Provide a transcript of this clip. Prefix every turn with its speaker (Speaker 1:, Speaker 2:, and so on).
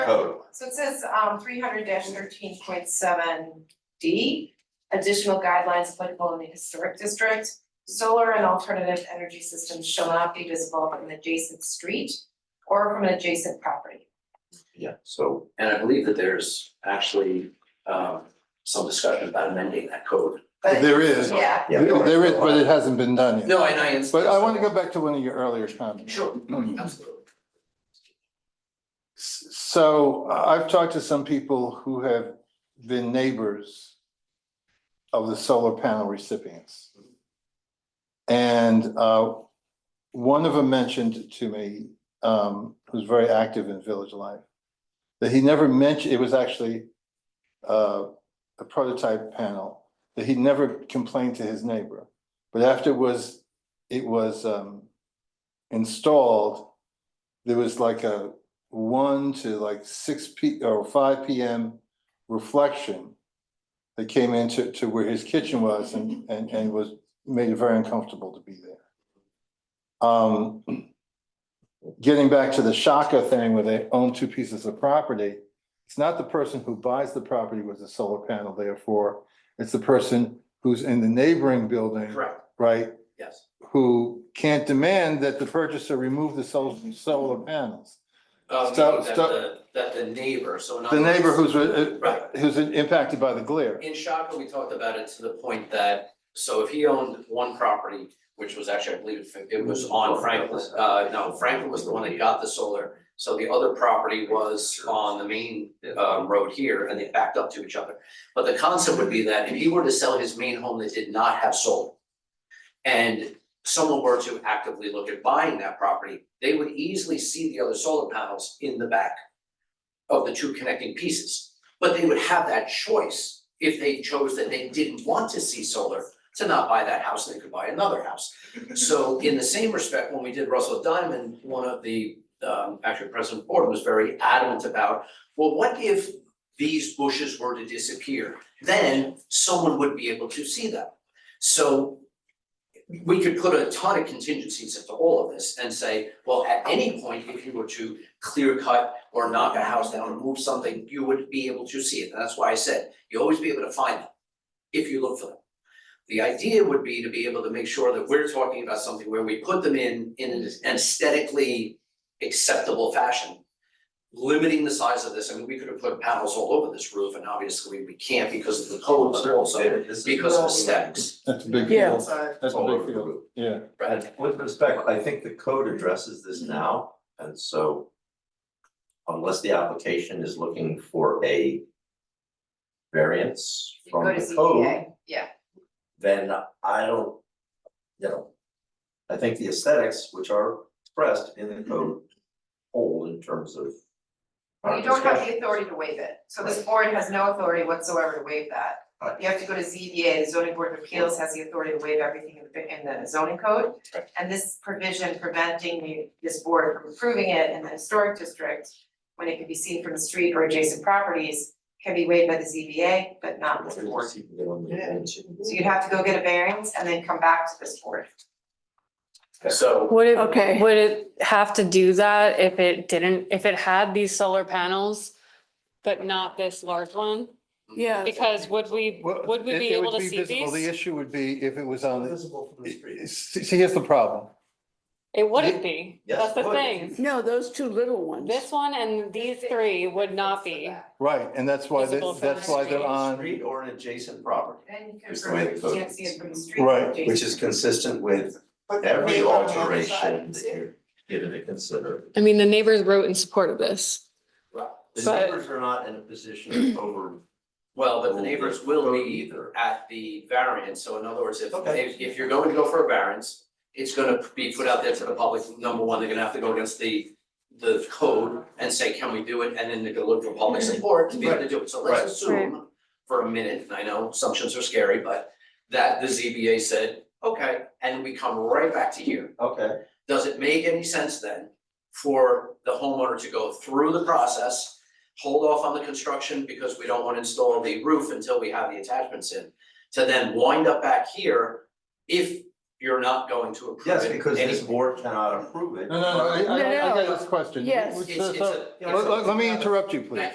Speaker 1: code.
Speaker 2: So it says, um, three hundred thirteen point seven D, additional guidelines applicable in the historic district. Solar and alternative energy systems shall not be visible from an adjacent street or from an adjacent property.
Speaker 3: Yeah,
Speaker 1: So
Speaker 3: and I believe that there's actually um some discussion about amending that code.
Speaker 2: But,
Speaker 4: There is,
Speaker 2: yeah,
Speaker 1: Yeah.
Speaker 4: There- there is, but it hasn't been done yet.
Speaker 3: No, I know, it's.
Speaker 4: But I want to go back to one of your earlier comments.
Speaker 3: Sure, absolutely.
Speaker 4: S- So I- I've talked to some people who have been neighbors of the solar panel recipients. And uh, one of them mentioned to me, um, who's very active in village life, that he never mentioned, it was actually uh, a prototype panel, that he never complained to his neighbor. But after it was, it was um, installed, there was like a one to like six P or five PM reflection that came into to where his kitchen was and and and was made it very uncomfortable to be there. Um, getting back to the Shaka thing where they own two pieces of property, it's not the person who buys the property with the solar panel therefore, it's the person who's in the neighboring building,
Speaker 3: Correct,
Speaker 4: right?
Speaker 3: yes.
Speaker 4: Who can't demand that the purchaser remove the sol- solar panels.
Speaker 3: Um,
Speaker 4: So-
Speaker 3: that
Speaker 4: so-
Speaker 3: the that the neighbor, so in other
Speaker 4: The neighbor
Speaker 3: words-
Speaker 4: who's, uh,
Speaker 3: Right,
Speaker 4: who's impacted by the glare.
Speaker 3: in Shaka, we talked about it to the point that, so if he owned one property, which was actually, I believe, it was on Franklin, uh, no, Franklin was the one that got the solar. So the other property was on the main um road here and they backed up to each other. But the concept would be that if he were to sell his main home that did not have solar. And someone were to actively look at buying that property, they would easily see the other solar panels in the back. Of the two connecting pieces, but they would have that choice if they chose that they didn't want to see solar. To not buy that house, they could buy another house. So in the same respect, when we did Russell Diamond, one of the um actually President Ford was very adamant about well, what if these bushes were to disappear? Then someone would be able to see them. So we could put a ton of contingencies into all of this and say, well, at any point, if you were to clear cut or knock a house down or move something, you would be able to see it. And that's why I said, you'll always be able to find them if you look for them. The idea would be to be able to make sure that we're talking about something where we put them in in an aesthetically acceptable fashion limiting the size of this, I mean, we could have put panels all over this roof and obviously we can't because of the codes and also because of aesthetics,
Speaker 4: That's a big
Speaker 5: Yeah.
Speaker 4: field. That's a
Speaker 1: All
Speaker 4: big
Speaker 1: over the
Speaker 4: field.
Speaker 1: roof.
Speaker 4: Yeah.
Speaker 3: right?
Speaker 1: And with respect, I think the code addresses this now, and so unless the application is looking for a variance
Speaker 2: you
Speaker 1: from
Speaker 2: go to
Speaker 1: the code,
Speaker 2: ZBA, yeah,
Speaker 1: then I don't, you know, I think the aesthetics, which are expressed in the code, hold in terms of our
Speaker 2: Mm-hmm. you don't have the
Speaker 1: discussion.
Speaker 2: authority to waive it, so this board has no authority whatsoever to waive that.
Speaker 1: Right.
Speaker 2: You have to go to ZBA, the zoning board of appeals has the authority to waive everything in the, in the zoning code.
Speaker 3: Right.
Speaker 2: And this provision preventing the- this board from approving it in the historic district, when it can be seen from the street or adjacent properties, can be waived by the ZBA, but not this board. So you'd have to go get a variance and then come back to this board.
Speaker 3: So,
Speaker 5: Would
Speaker 6: Okay.
Speaker 5: it, would it have to do that if it didn't, if it had these solar panels, but not this large one?
Speaker 6: Yeah.
Speaker 5: Because would we,
Speaker 4: Well,
Speaker 5: would we
Speaker 4: it-
Speaker 5: be
Speaker 4: it
Speaker 5: able
Speaker 4: would
Speaker 5: to see
Speaker 4: visible. The
Speaker 5: these?
Speaker 4: issue would be if it was on, the-
Speaker 1: Visible from the street.
Speaker 4: see, see, here's the problem.
Speaker 5: It wouldn't be.
Speaker 1: Yes,
Speaker 5: That's
Speaker 1: it
Speaker 5: the
Speaker 1: would.
Speaker 5: thing.
Speaker 6: No, those two little ones.
Speaker 5: This one and these three would not be.
Speaker 4: Right, and that's why, they-
Speaker 5: Visible from
Speaker 4: that's
Speaker 5: the
Speaker 4: why they're on,
Speaker 1: Street or an adjacent property,
Speaker 2: Then you can,
Speaker 1: Just the way the
Speaker 2: you
Speaker 1: code
Speaker 2: can't see it from the street.
Speaker 4: Right,
Speaker 2: adjacent
Speaker 1: which is consistent with every alteration that you're given to consider.
Speaker 5: I mean, the neighbors wrote in support of this.
Speaker 1: The
Speaker 5: But-
Speaker 1: neighbors are not in a position to over.
Speaker 3: well, but the neighbors will
Speaker 1: Code
Speaker 3: be
Speaker 1: either.
Speaker 3: at the variance, so in other words, if
Speaker 1: Okay.
Speaker 3: if if you're going to go for a variance, it's gonna be put out there to the public, number one, they're gonna have to go against the the code and say, can we do it? And then they're gonna look for public support to be able to do it. So
Speaker 1: Right.
Speaker 3: let's assume for a minute, and I know assumptions are scary, but that the ZBA said, okay, and we come right back to here.
Speaker 1: Okay,
Speaker 3: Does it make any sense then for the homeowner to go through the process? Hold off on the construction because we don't want to install the roof until we have the attachments in, to then wind up back here? If you're not going to approve it.
Speaker 1: Yes, because this
Speaker 3: anyway.
Speaker 1: board cannot approve it.
Speaker 4: No, no, no, I, I, I got this question.
Speaker 6: Yes.
Speaker 4: Let's-
Speaker 3: It's, it's
Speaker 4: so-
Speaker 3: a.
Speaker 4: Let, let- let me interrupt you, please.